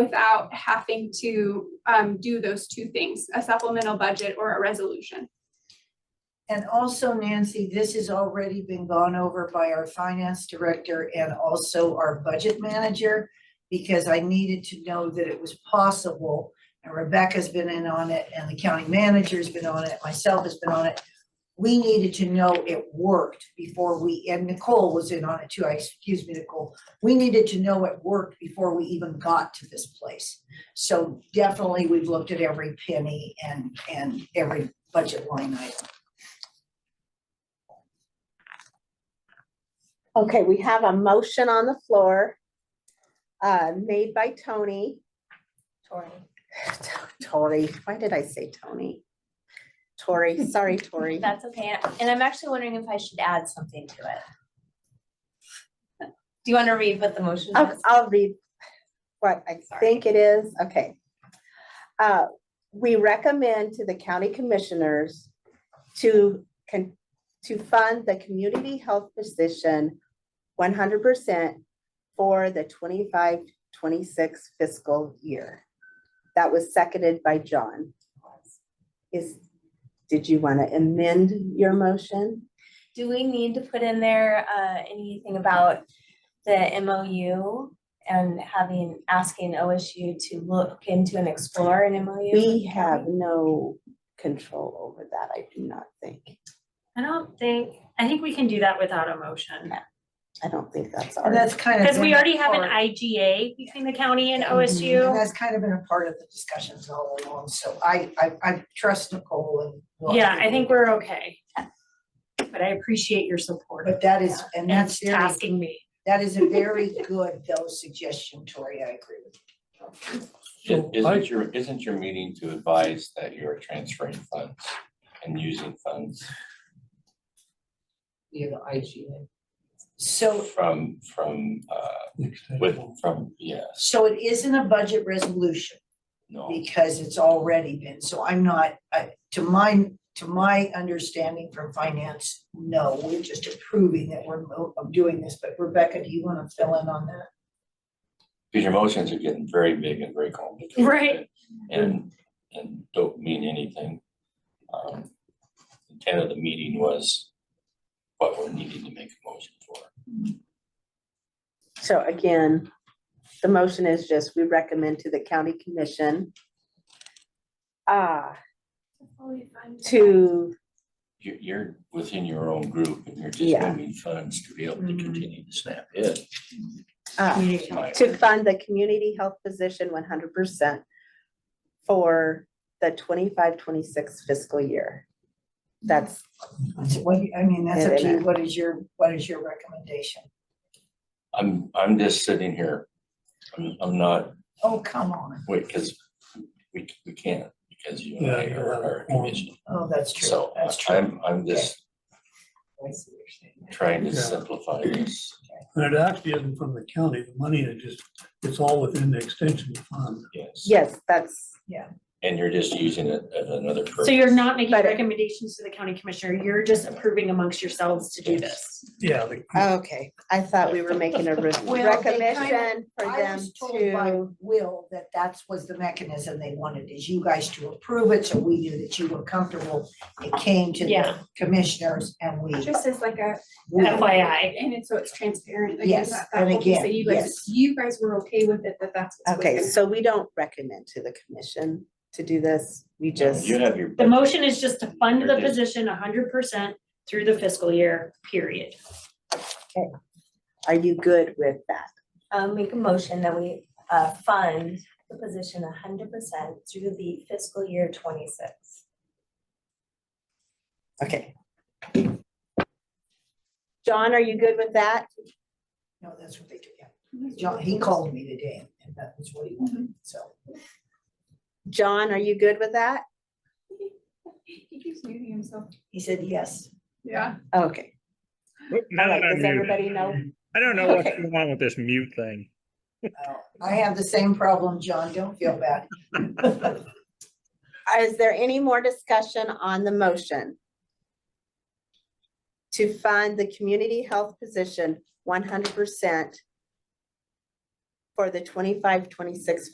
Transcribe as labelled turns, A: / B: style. A: without having to um do those two things, a supplemental budget or a resolution.
B: And also Nancy, this has already been gone over by our finance director and also our budget manager. Because I needed to know that it was possible and Rebecca's been in on it and the county manager's been on it, myself has been on it. We needed to know it worked before we, and Nicole was in on it too, I, excuse me, Nicole. We needed to know it worked before we even got to this place. So definitely we've looked at every penny and, and every budget line item.
C: Okay, we have a motion on the floor, uh, made by Tony.
B: Tori.
C: Tori, why did I say Tony? Tori, sorry, Tori.
D: That's okay, and I'm actually wondering if I should add something to it. Do you want to read what the motion
C: I'll,
D: is?
C: I'll read what I
D: Sorry.
C: think it is, okay. Uh, we recommend to the county commissioners to con, to fund the community health position one hundred percent for the 25-26 fiscal year. That was seconded by John. Is, did you want to amend your motion?
D: Do we need to put in there uh anything about the MOU and having, asking OSU to look into and explore an MOU?
C: We have no control over that, I do not think.
E: I don't think, I think we can do that without a motion,
C: I don't think that's
B: And
C: ours.
B: that's kind of.
E: because we
B: been a
E: already have an
B: part-
E: IGA between the county
B: Mm-hmm.
E: and
B: And
E: OSU.
B: that's kind of been a part of the discussions all along, so I, I, I trust Nicole and. we'll-
E: Yeah, I think we're okay. But I appreciate your support
B: But that is, and
E: and
B: that's very,
E: tasking me.
B: that is a very good, though, suggestion, Tori, I agree with.
F: So
G: Is-
F: I-
G: Isn't your, isn't your meeting to advise that you're transferring funds and using funds
B: You know, IGA. So,
G: from, from, uh, with, from, yes,
B: so it isn't a budget resolution
G: no,
B: because it's already been, so I'm not, I, to my, to my understanding from finance, no, we're just approving that we're mo- of doing this, but Rebecca, do you wanna fill in on that?
G: because your motions are getting very big and very complicated.
E: Right.
G: And, and don't mean anything. Um, the Intent of the meeting was what we're needing to make a motion for.
C: So again, the motion is just, we recommend to the county commission uh, to,
G: You're, you're within your own group and you're just
C: Yeah.
G: moving funds to be able to
F: Mm-hmm.
B: Mhm.
G: continue to snap it.
C: uh,
G: My-
C: to fund the community health position one hundred percent for the 25-26 fiscal year. That's,
B: So What, do you- I mean, that's up to you,
C: Internet.
B: what is your, what is your recommendation?
G: I'm, I'm just sitting here. I'm, I'm not,
B: Oh, come on,
G: wait, because we, we can't, because you and I
F: Yeah,
G: are our
F: yeah.
G: commission.
B: oh, that's true,
G: So
B: that's true.
G: I'm, I'm just
B: I see what you're saying.
G: trying to
F: Yeah.
G: simplify this.
F: And it actually isn't from the county, the money, it just, it's all within the extension fund.
G: Yes.
C: yes, that's,
G: And you're just using it as another purpose.
E: So you're not making
C: But-
E: recommendations to the county commissioner, you're just approving amongst yourselves to do this.
F: Yeah, the-
C: okay, I thought we were making a re-
B: Well, they
C: recommendation for
B: I
C: them
B: was told by
C: to,
B: Will that that's was the mechanism they wanted, is you guys to approve it, so we knew that you were comfortable. It came to the
E: Yeah.
B: commissioners and we.
A: Just as like a.
B: we-
E: FYI.
A: And it's so it's transparent. like,
B: Yes,
A: that- that
B: and
A: whole piece
B: again,
A: that you guys-
B: yes.
A: You guys were okay with it, that that's. what's
C: okay,
A: within.
C: so we don't recommend to the commission to do this. We just.
G: You have your.
E: The motion is just to fund the
G: You're just-
E: position hundred percent through the fiscal year, period.
C: Are you good with that?
D: Um, make a motion that we uh fund the position hundred percent through the fiscal year twenty-six.
C: Okay. John, are you good with that?
B: No, that's what they do, yeah. John, he called me today and that was what he wanted, so.
C: John, are you good with that?
A: He keeps muting himself.
B: He said, yes.
A: Yeah.
C: Okay,
H: Now that
C: Alright,
H: I'm
C: does everybody
H: muted,
C: know?
H: I don't know what's
C: Okay.
H: going on with this mute thing.
B: Oh, I have the same problem, John, don't feel bad.
C: Is there any more discussion on the motion? To fund the community health position one hundred percent for the 25-26